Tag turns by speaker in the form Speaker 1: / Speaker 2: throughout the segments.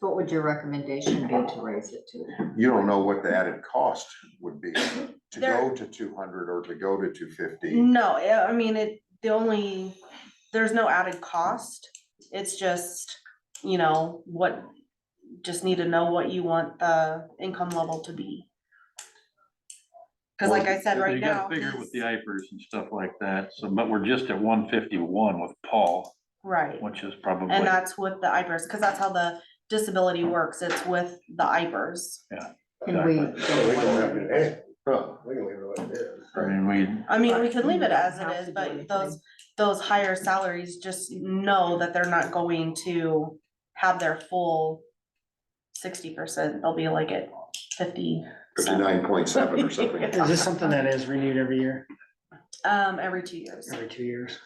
Speaker 1: So what would your recommendation be to raise it to?
Speaker 2: You don't know what the added cost would be to go
Speaker 3: There- Mm.
Speaker 2: to two hundred or to go to two fifty.
Speaker 3: No, I I mean, it, the only, there's no added cost. It's just, you know, what, just need to know what you want the income level to be. Cause like I said, right
Speaker 4: You
Speaker 3: now.
Speaker 4: gotta figure with the
Speaker 3: he's-
Speaker 4: IFRS and stuff like that, so, but we're just at one fifty-one with Paul,
Speaker 3: Right,
Speaker 4: which is probably,
Speaker 3: and that's with the IBRs, cause that's how the disability works. It's with the E IBRs.
Speaker 1: Can we?
Speaker 4: Exactly.
Speaker 1: go one-
Speaker 2: Huh.
Speaker 4: I mean, we,
Speaker 3: I mean, we could leave
Speaker 1: You
Speaker 3: it
Speaker 1: don't
Speaker 3: as
Speaker 1: have
Speaker 3: it
Speaker 1: to
Speaker 3: is,
Speaker 1: do
Speaker 3: but
Speaker 1: anything.
Speaker 3: those, those higher salaries, just know that they're not going to have their full sixty percent. They'll be like at fifty.
Speaker 2: Fifty-nine point seven or something.
Speaker 3: Yeah.
Speaker 5: Is this something that is renewed every year,
Speaker 3: Um, every two years.
Speaker 5: every two years?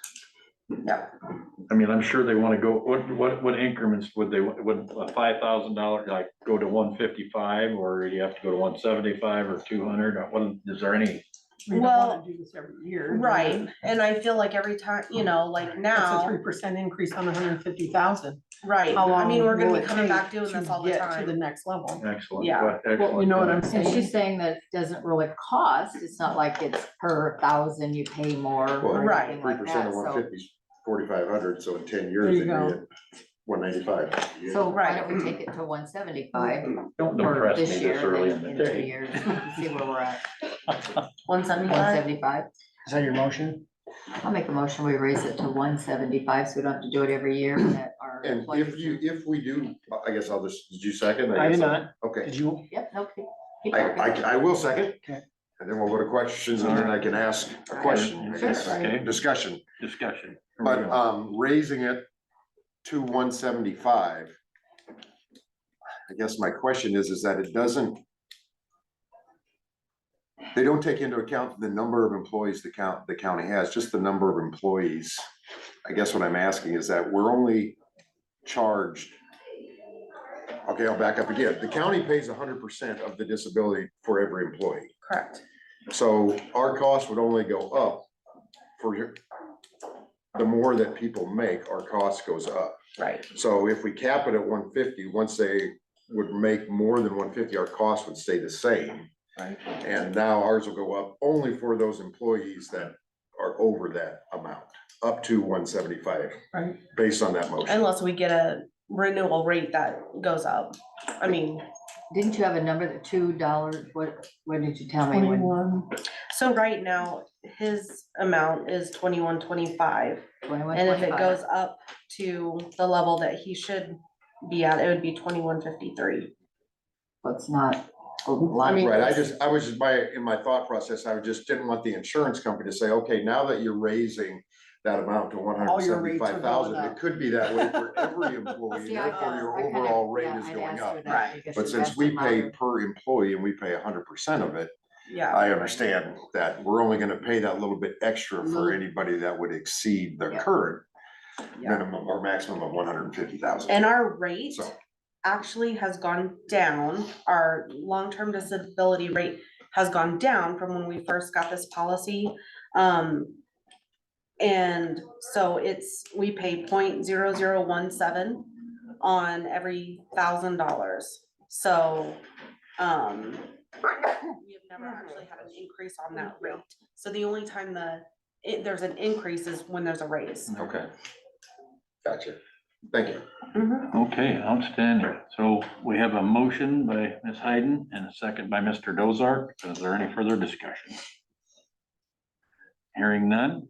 Speaker 4: I mean, I'm sure they wanna go, what, what, what increments would they, would a five thousand dollar, like, go to one fifty-five, or you have to go to one seventy-five or two hundred, what, is there any?
Speaker 6: We don't wanna
Speaker 3: Well,
Speaker 6: Do this every year.
Speaker 3: Right, and I feel like every time, you know, like
Speaker 6: That's a
Speaker 3: now,
Speaker 6: three percent increase on hundred and fifty thousand.
Speaker 3: right,
Speaker 6: How
Speaker 3: I
Speaker 6: long
Speaker 3: mean, we're
Speaker 6: will
Speaker 3: gonna
Speaker 6: it
Speaker 3: be coming
Speaker 6: take
Speaker 3: back doing
Speaker 6: to
Speaker 3: this all the
Speaker 6: get To the
Speaker 3: time.
Speaker 6: next level.
Speaker 4: Excellent.
Speaker 3: Yeah.
Speaker 4: what-
Speaker 6: Well, you know what I'm
Speaker 4: excellent.
Speaker 1: And she's saying
Speaker 6: saying?
Speaker 1: that it doesn't really cost, it's not like it's per thousand you pay more or
Speaker 3: Right.
Speaker 1: anything
Speaker 2: Three
Speaker 1: like
Speaker 2: percent
Speaker 1: that,
Speaker 2: of one
Speaker 1: so.
Speaker 2: fifty is forty-five hundred, so in ten
Speaker 6: There
Speaker 2: years,
Speaker 6: you
Speaker 2: it'd
Speaker 6: go.
Speaker 2: be one ninety-five.
Speaker 1: So why
Speaker 3: Right.
Speaker 1: don't we take it to one seventy-five
Speaker 4: Don't
Speaker 2: Mm-hmm.
Speaker 1: for
Speaker 4: depress me
Speaker 1: this
Speaker 4: this
Speaker 1: year,
Speaker 4: early in
Speaker 1: then
Speaker 4: the
Speaker 1: in two
Speaker 4: day.
Speaker 1: years, see where we're at,
Speaker 3: One
Speaker 1: one
Speaker 3: seventy-five,
Speaker 1: seventy-five?
Speaker 5: Is that your motion?
Speaker 1: I'll make a motion, we raise it to one seventy-five, so we don't have to do it every year that our
Speaker 2: And if you,
Speaker 1: employees.
Speaker 2: if we do, I guess I'll just, did you second?
Speaker 5: I
Speaker 2: guess
Speaker 5: did
Speaker 2: I'll-
Speaker 5: not.
Speaker 2: Okay,
Speaker 5: Did you?
Speaker 1: Yep, okay. Keep
Speaker 2: I,
Speaker 1: talking.
Speaker 2: I, I will second.
Speaker 5: Okay.
Speaker 2: And then we'll go to questions and then I can ask a question, I guess.
Speaker 1: Sure.
Speaker 4: Okay,
Speaker 2: discussion.
Speaker 4: discussion. Here we
Speaker 2: But,
Speaker 4: go.
Speaker 2: um, raising it to one seventy-five. I guess my question is, is that it doesn't. They don't take into account the number of employees the count, the county has, just the number of employees. I guess what I'm asking is that we're only charged. Okay, I'll back up again. The county pays hundred percent of the disability for every employee.
Speaker 3: correct.
Speaker 2: So our cost would only go up for your, the more that people make, our cost goes up.
Speaker 3: Right.
Speaker 2: So if we cap it at one fifty, once they would make more than one fifty, our cost would stay the same.
Speaker 3: Right.
Speaker 2: And now ours will go up only for those employees that are over that amount, up to one seventy-five.
Speaker 3: Right.
Speaker 2: Based on that motion.
Speaker 3: Unless we get a renewal rate that goes up, I mean.
Speaker 1: Didn't you have a number that two dollars, what, what did you tell me? when-
Speaker 6: Twenty-one.
Speaker 3: So right now, his amount is twenty-one, twenty-five,
Speaker 1: Twenty-one,
Speaker 3: and if it
Speaker 1: twenty-five?
Speaker 3: goes up to the level that he should be at, it would be twenty-one, fifty-three.
Speaker 1: Well, It's not a
Speaker 3: I
Speaker 1: lot.
Speaker 3: mean-
Speaker 2: Right, I just, I was just my, in my thought process, I just didn't want the insurance company to say, okay, now that you're raising that amount to one hundred
Speaker 6: All your rates are
Speaker 2: seventy-five
Speaker 6: going
Speaker 2: thousand,
Speaker 6: up.
Speaker 2: it could be that way for every employee,
Speaker 1: See, I
Speaker 2: therefore
Speaker 1: guess
Speaker 2: your
Speaker 1: I kinda-
Speaker 2: overall rate
Speaker 1: yeah,
Speaker 2: is
Speaker 1: I'd
Speaker 2: going
Speaker 1: asked
Speaker 2: up.
Speaker 1: her that
Speaker 3: Right.
Speaker 1: because
Speaker 2: But
Speaker 1: she
Speaker 2: since
Speaker 1: asked
Speaker 2: we
Speaker 1: about
Speaker 2: pay
Speaker 1: it.
Speaker 2: per employee and we pay hundred percent of it,
Speaker 3: Yeah.
Speaker 2: I understand that we're only gonna pay that little bit extra for anybody that would exceed the
Speaker 1: Yeah.
Speaker 2: current
Speaker 3: Yeah.
Speaker 2: minimum or maximum of one hundred and fifty thousand.
Speaker 3: And our rate
Speaker 2: So-
Speaker 3: actually has gone down, our long-term disability rate has gone down from when we first got this policy. Um, and so it's, we pay 0.0017 on every thousand dollars, so, um, we have never actually had an increase on that rate, so the only time the, it, there's an increase is when there's a raise.
Speaker 2: Okay. Gotcha. Thank you.
Speaker 4: Mm-hmm. Okay, outstanding. So we have a motion by Ms. Hayden and a second by Mr. Dozark. Is there any further discussion? Hearing none.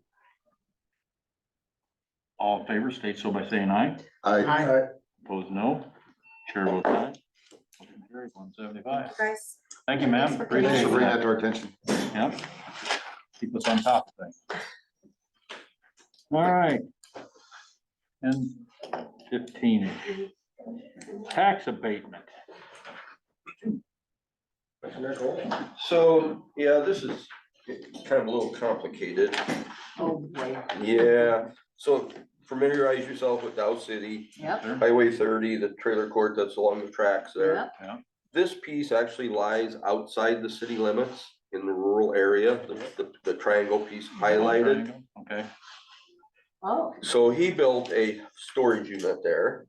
Speaker 4: All in favor, state so by saying aye.
Speaker 2: I,
Speaker 6: Hi.
Speaker 4: Opposed, no. Chair votes aye. Motion carries, 175.
Speaker 3: Guys,
Speaker 4: Thank you, ma'am.
Speaker 2: thanks for
Speaker 4: Appreciate
Speaker 2: bringing that
Speaker 4: that.
Speaker 2: to our attention.
Speaker 4: Yep. Keep us on top of things. All right. And fifteen. Tax abatement.
Speaker 7: So, yeah, this is kind of a little complicated.
Speaker 1: Oh, boy,
Speaker 7: Yeah, so familiarize yourself with Dow City,
Speaker 1: yep,
Speaker 7: Highway thirty, the trailer court that's along the tracks there.
Speaker 1: yep,
Speaker 7: This piece actually lies outside the city limits in the rural area, the- the, the triangle piece highlighted.
Speaker 4: Okay.
Speaker 1: oh,
Speaker 7: So he built a storage unit there.